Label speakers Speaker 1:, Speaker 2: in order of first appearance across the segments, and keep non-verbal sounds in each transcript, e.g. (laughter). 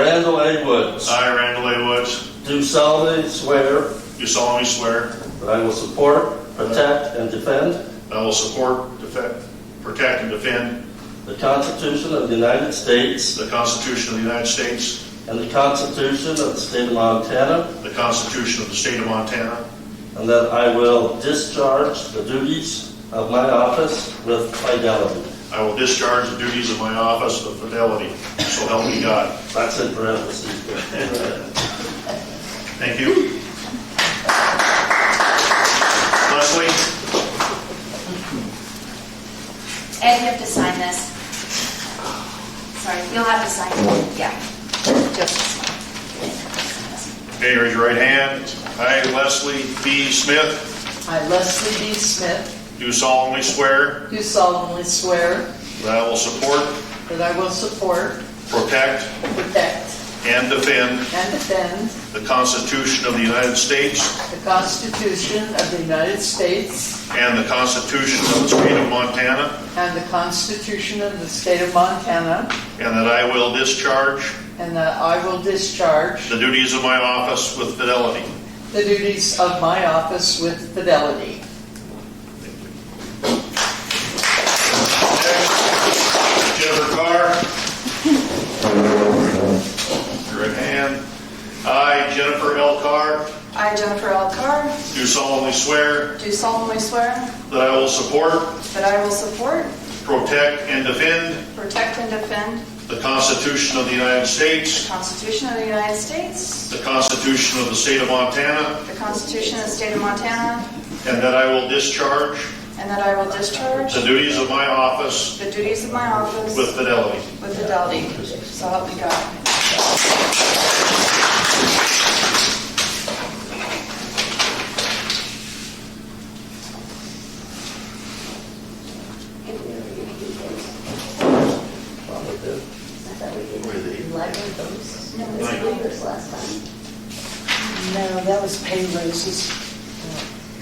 Speaker 1: Randall A. Woods,
Speaker 2: I, Randall A. Woods,
Speaker 1: do solemnly swear
Speaker 2: do solemnly swear
Speaker 1: that I will support, protect, and defend
Speaker 2: that I will support, defend, protect, and defend
Speaker 1: the Constitution of the United States
Speaker 2: the Constitution of the United States,
Speaker 1: and the Constitution of the State of Montana,
Speaker 2: the Constitution of the State of Montana,
Speaker 1: and that I will discharge the duties of my office with fidelity.
Speaker 2: I will discharge the duties of my office with fidelity, so help me God.
Speaker 1: That's in parentheses.
Speaker 2: Thank you. Leslie,
Speaker 3: Ed, you have to sign this. Sorry, you'll have to sign it, yeah. Just this one.
Speaker 2: okay, raise your right hand. I, Leslie B. Smith,
Speaker 4: I, Leslie B. Smith,
Speaker 2: do solemnly swear
Speaker 4: do solemnly swear
Speaker 2: that I will support,
Speaker 4: that I will support,
Speaker 2: protect,
Speaker 4: protect,
Speaker 2: and defend
Speaker 4: and defend
Speaker 2: the Constitution of the United States
Speaker 4: the Constitution of the United States
Speaker 2: and the Constitution of the State of Montana,
Speaker 4: and the Constitution of the State of Montana,
Speaker 2: and that I will discharge
Speaker 4: and that I will discharge
Speaker 2: the duties of my office with fidelity.
Speaker 4: the duties of my office with fidelity.
Speaker 2: Jennifer Carr. Right hand. I, Jennifer L. Carr,
Speaker 5: I, Jennifer L. Carr,
Speaker 2: do solemnly swear
Speaker 5: do solemnly swear
Speaker 2: that I will support,
Speaker 5: that I will support,
Speaker 2: protect, and defend
Speaker 5: protect, and defend
Speaker 2: the Constitution of the United
Speaker 5: the
Speaker 2: States,
Speaker 5: Constitution of the United States,
Speaker 2: the Constitution of the State of Montana,
Speaker 5: the Constitution of the State of Montana,
Speaker 2: and that I will discharge
Speaker 5: and that I will discharge
Speaker 2: the duties of my office
Speaker 5: the duties of my office
Speaker 2: with fidelity.
Speaker 5: with fidelity. So help me God.
Speaker 6: No, that was pay raises.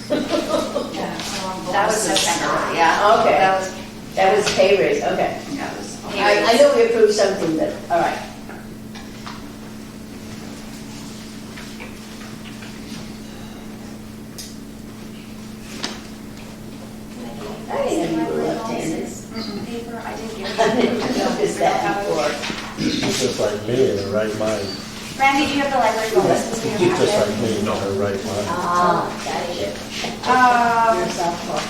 Speaker 3: That was September, yeah.
Speaker 7: Okay.
Speaker 3: That was,
Speaker 7: That was pay raise, okay.
Speaker 3: that was.
Speaker 7: I, I know we approved something, but, all right.
Speaker 3: That is my little paper, I didn't (laughs) get it.
Speaker 7: Noticed that before.
Speaker 8: She's just like me in her right mind.
Speaker 3: Randy, do you have the library book? This is in your
Speaker 8: She's just
Speaker 3: packet.
Speaker 8: like me in her right mind.
Speaker 7: Ah, gotcha.
Speaker 3: Um,
Speaker 7: Your softball.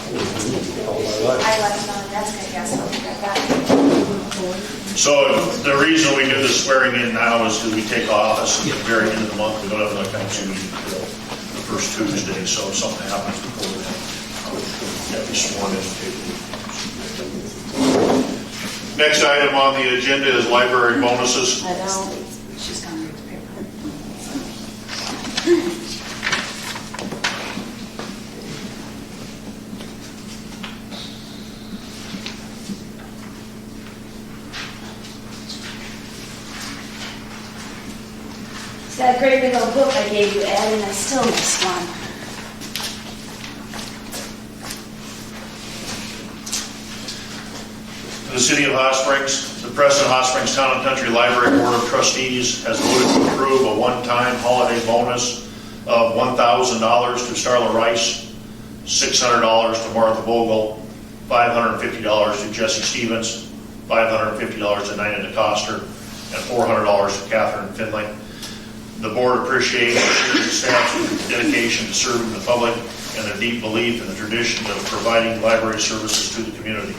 Speaker 8: All my life.
Speaker 3: I left it on the desk, I guess, I'll get that.
Speaker 2: So the reason we do the swearing in now is because we take office at the very end of the month. We don't have like council meeting until the first Tuesday, so if something happens before then, you have to be sworn in. Next item on the agenda is library bonuses.
Speaker 7: I know.
Speaker 3: She's gonna read the paper. It's that great big old book I gave you, Ed, and I still missed one.
Speaker 2: The City of Hot Springs, the President Hot Springs Town and Country Library Board of Trustees has voted to approve a one-time holiday bonus of $1,000 to Starla Rice, $600 to Martha Vogel, $550 to Jesse Stevens, $550 to Nina DeCoster, and $400 to Catherine Finley. The board appreciates the city staff's dedication to serving the public and their deep belief in the tradition of providing library services to the community.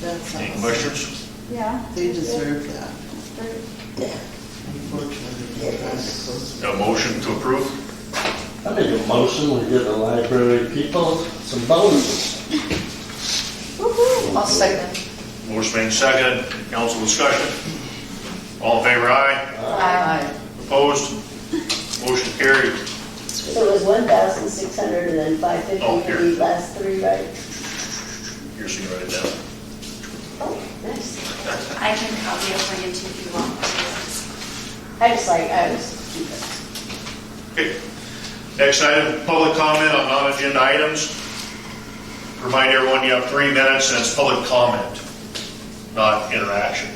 Speaker 4: That's
Speaker 2: Any
Speaker 4: awesome.
Speaker 2: questions?
Speaker 5: Yeah.
Speaker 4: They deserve that,
Speaker 5: Very-
Speaker 4: unfortunately. they're trying to close
Speaker 2: A motion to approve?
Speaker 1: I make a motion, we give the library people some bonuses.
Speaker 4: it. I'll second.
Speaker 2: Motion made second, council discussion. All in favor, aye.
Speaker 4: Aye.
Speaker 2: Opposed? Motion carried.
Speaker 7: So it was one thousand six hundred and then five fifty
Speaker 2: Oh,
Speaker 7: for
Speaker 2: here.
Speaker 7: the last three, right?
Speaker 2: Here's the write it down.
Speaker 7: Oh, nice.
Speaker 3: I can copy it for you too if you want.
Speaker 7: I just like, I was, keep it.
Speaker 2: Okay. Next item, public comment on non-agenda items. Remind everyone you have three minutes and it's public comment, not interaction.